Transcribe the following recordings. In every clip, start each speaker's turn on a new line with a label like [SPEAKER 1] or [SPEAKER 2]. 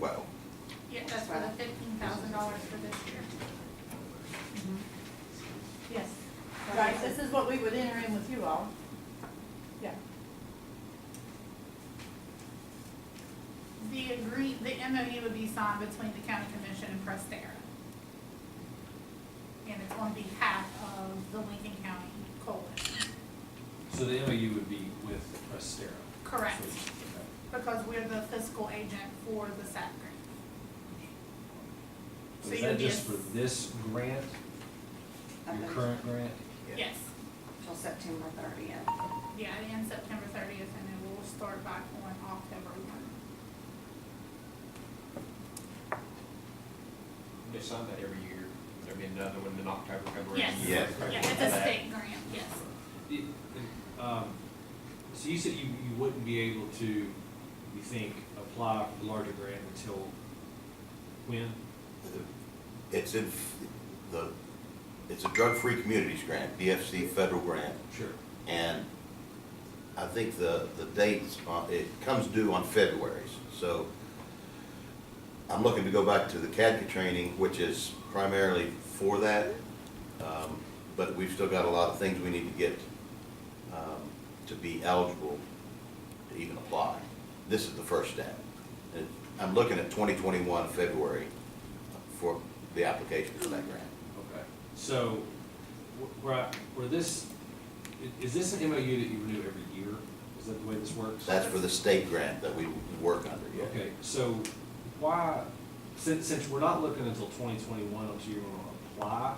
[SPEAKER 1] Well,
[SPEAKER 2] Yeah, that's for the fifteen thousand dollars for this year.
[SPEAKER 3] Yes, right, this is what we would enter in with you all. Yeah,
[SPEAKER 2] The agree, the MOU would be signed between the county commission and Prestera. And it's on behalf of the Lincoln County Coalition,
[SPEAKER 4] So the MOU would be with Prestera?
[SPEAKER 2] Correct.
[SPEAKER 4] Okay.
[SPEAKER 2] because we're the fiscal agent for the SAP grant.
[SPEAKER 4] So
[SPEAKER 2] So
[SPEAKER 4] Is
[SPEAKER 2] you would
[SPEAKER 4] that
[SPEAKER 2] be a-
[SPEAKER 4] just for this grant, your current grant?
[SPEAKER 2] Yes,
[SPEAKER 5] Till September thirtieth.
[SPEAKER 2] yeah, it ends September thirtieth, and then we'll start back on October one.
[SPEAKER 6] They sign that every year. There'll be another one in October, February.
[SPEAKER 2] Yes, yeah,
[SPEAKER 1] Yes.
[SPEAKER 2] it's a state grant, yes.
[SPEAKER 4] It- um, So you said you, you wouldn't be able to, you think, apply for the larger grant until when?
[SPEAKER 1] it's in, f- the, it's a drug-free communities grant, DFC federal grant,
[SPEAKER 4] Sure.
[SPEAKER 1] and I think the, the dates, on- it comes due on February's, so I'm looking to go back to the CADCA training, which is primarily for that, um, but we've still got a lot of things we need to get, um, to be eligible to even apply. This is the first step. And I'm looking at twenty twenty-one, February, for the application for that grant.
[SPEAKER 4] Okay. So, wh- where, I- where this, i- is this an MOU that you renew every year? Is that the way this works?
[SPEAKER 1] That's for the state grant that we work under, yeah.
[SPEAKER 4] Okay, so why, since, since we're not looking until twenty twenty-one until you're gonna apply,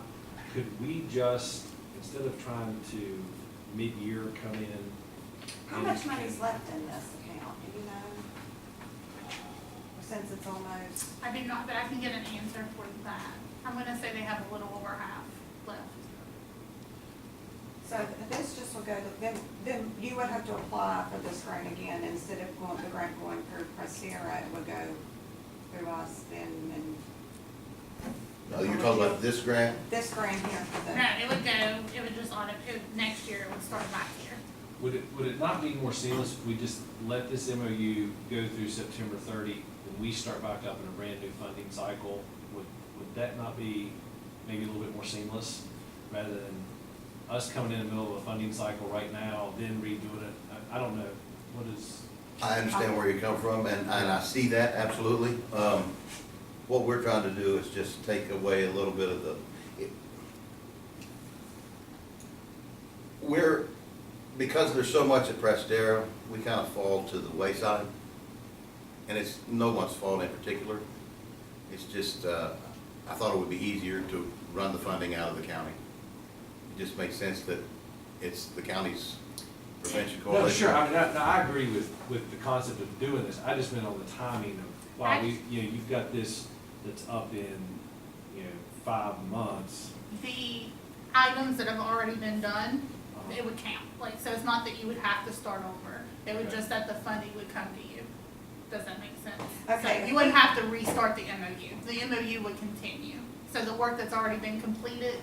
[SPEAKER 4] could we just, instead of trying to mid-year come in?
[SPEAKER 5] How
[SPEAKER 4] and-
[SPEAKER 5] much money's left in this account, do you know? Since it's almost,
[SPEAKER 2] I do not, but I can get an answer for that. I'm gonna say they have a little over half left.
[SPEAKER 5] so this just will go, to- then, then you would have to apply for this grant again, instead of going, the grant going through Prestera, it would go through us then, and
[SPEAKER 1] Now, Uh, you're talking about this grant?
[SPEAKER 5] this grant here for the.
[SPEAKER 2] No, it would go, it would just auto, it, would- next year it would start back here.
[SPEAKER 4] Would it, would it not be more seamless if we just let this MOU go through September thirty, when we start back up in a brand-new funding cycle? Would, would that not be maybe a little bit more seamless, rather than us coming in the middle of a funding cycle right now, then redoing it? I, I don't know, what is?
[SPEAKER 1] I understand where you come from, and, and I see that, absolutely. Um, what we're trying to do is just take away a little bit of the, it- we're, because there's so much at Prestera, we kind of fall to the wayside. And it's no one's fault in particular. It's just, uh, I thought it would be easier to run the funding out of the county. It just makes sense that it's the county's prevention
[SPEAKER 4] No,
[SPEAKER 1] coalition.
[SPEAKER 4] sure, I mean, I, no, I agree with, with the concept of doing this, I just meant on the timing of, wow, we, you know, you've got this that's up in, you know, five months.
[SPEAKER 2] The items that have already been done,
[SPEAKER 4] um,
[SPEAKER 2] it would count. Like, so it's not that you would have to start over. It would
[SPEAKER 4] Okay.
[SPEAKER 2] just that the funding would come to you. Does that make sense?
[SPEAKER 5] Okay.
[SPEAKER 2] So you wouldn't have to restart the MOU. The MOU would continue. So the work that's already been completed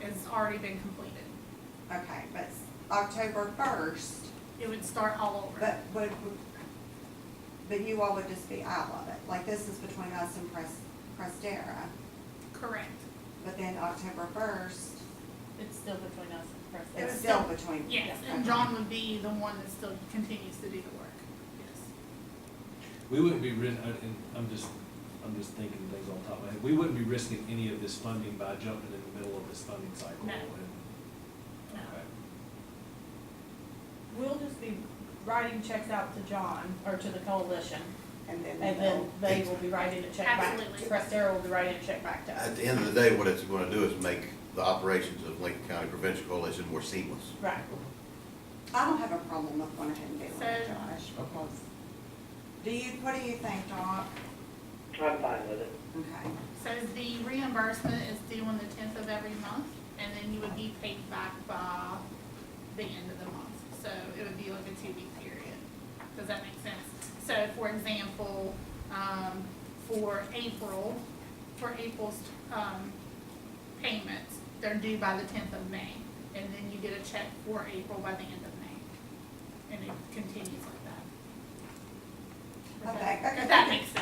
[SPEAKER 2] has already been completed.
[SPEAKER 5] Okay, but it's October first,
[SPEAKER 2] It would start all over.
[SPEAKER 5] But, but, but you all would just be out of it, like this is between us and Pres- Prestera,
[SPEAKER 2] Correct.
[SPEAKER 5] but then October first,
[SPEAKER 3] it's still between us and Prestera.
[SPEAKER 5] it's still between.
[SPEAKER 2] Yes, and John would be the one that still continues to do the work. Yes.
[SPEAKER 4] We wouldn't be, ris- I- and I'm just, I'm just thinking things on top of my head, we wouldn't be risking any of this funding by jumping in the middle of this funding cycle.
[SPEAKER 2] No.
[SPEAKER 4] and-
[SPEAKER 2] No.
[SPEAKER 4] okay.
[SPEAKER 3] We'll just be writing checks out to John, or to the coalition,
[SPEAKER 5] And then
[SPEAKER 3] and then they will be writing a check back.
[SPEAKER 2] Absolutely.
[SPEAKER 3] Prestera will be writing a check back to us.
[SPEAKER 1] At the end of the day, what it's gonna do is make the operations of Lincoln County Prevention Coalition more seamless.
[SPEAKER 3] Right.
[SPEAKER 5] I don't have a problem with going ahead and doing it,
[SPEAKER 2] So-
[SPEAKER 5] Josh, because, do you, what do you think, Doc?
[SPEAKER 7] I'm fine with it.
[SPEAKER 5] Okay,
[SPEAKER 2] So the reimbursement is due on the tenth of every month, and then you would be paid back by the end of the month. So it would be like a two-week period. Does that make sense? So for example, um, for April, for April's, um, payments, they're due by the tenth of May. And then you get a check for April by the end of May. And it continues like that. If that-
[SPEAKER 5] Okay, okay.
[SPEAKER 2] If that makes sense.